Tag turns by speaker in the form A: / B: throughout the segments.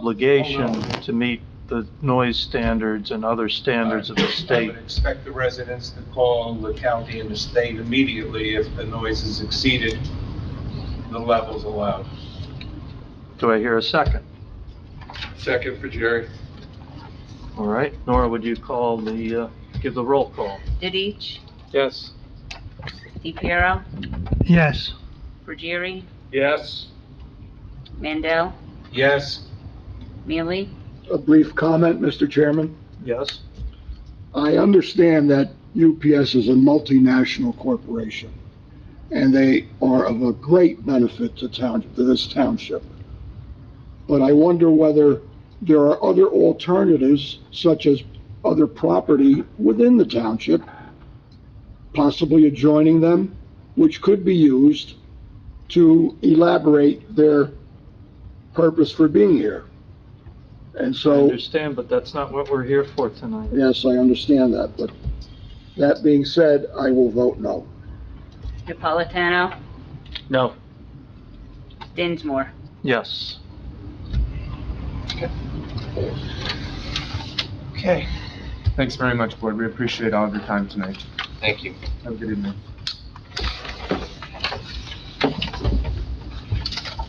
A: obligation to meet the noise standards and other standards of the
B: I
A: state.
B: would expect the residents to call the county and the state immediately if the noise has exceeded the levels allowed.
A: Do I hear a second?
C: Second for Jerry.
A: All right, Nora, would you call the, uh, give the roll call?
D: Didich,
C: Yes.
D: DePiero,
A: Yes.
D: Ruggieri,
C: Yes.
D: Mandel,
B: Yes,
D: Mealy,
E: A brief comment, Mr. Chairman.
A: Yes?
E: I understand that UPS is a multinational corporation, and they are of a great benefit to town, to this township. But I wonder whether there are other alternatives, such as other property within the township, possibly adjoining them, which could be used to elaborate their purpose for being here. And
A: I
E: so.
A: understand, but that's not what we're here for tonight.
E: Yes, I understand that, but that being said, I will vote no.
D: Napolitano,
A: No.
D: Dinsmore.
A: Yes.
F: Okay. Thanks very much, board. We appreciate all of your time tonight.
C: Thank you.
F: Have a good evening.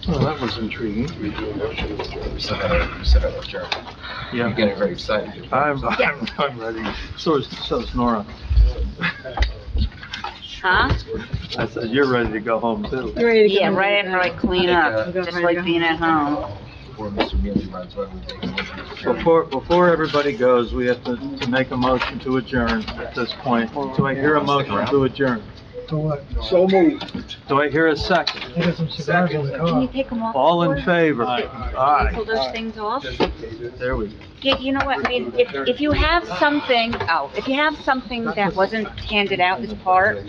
A: Well, that was intriguing.
C: We do a motion to adjourn. We said that, we said that, with Jerry. You're
A: Yeah.
C: getting very excited.
A: I'm, I'm, I'm ready. So is, so is Nora.
D: Huh?
A: I said, you're ready to go home too.
G: You ready to go
D: Yeah,
G: home?
D: right after I clean up, just like being at home.
C: Before Mr. Mealy runs, why don't we take a motion to adjourn?
A: Before, before everybody goes, we have to, to make a motion to adjourn at this point. Do I hear a motion to adjourn?
E: So moved.
A: Do I hear a second?
D: Can you take them off?
A: All in
D: before?
A: favor?
D: Can you
A: Aye.
D: Pull those things off?
A: There we go.
D: Yeah, you know what, I mean, if, if you have something, oh, if you have something that wasn't handed out as part, all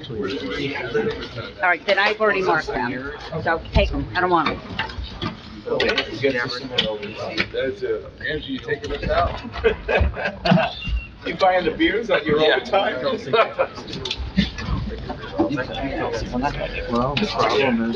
D: right, then I've already marked them. So take them, I don't want them.
B: that's it. Andrew, you taking us out? You buying the beers on your own time?
A: Well, the problem is.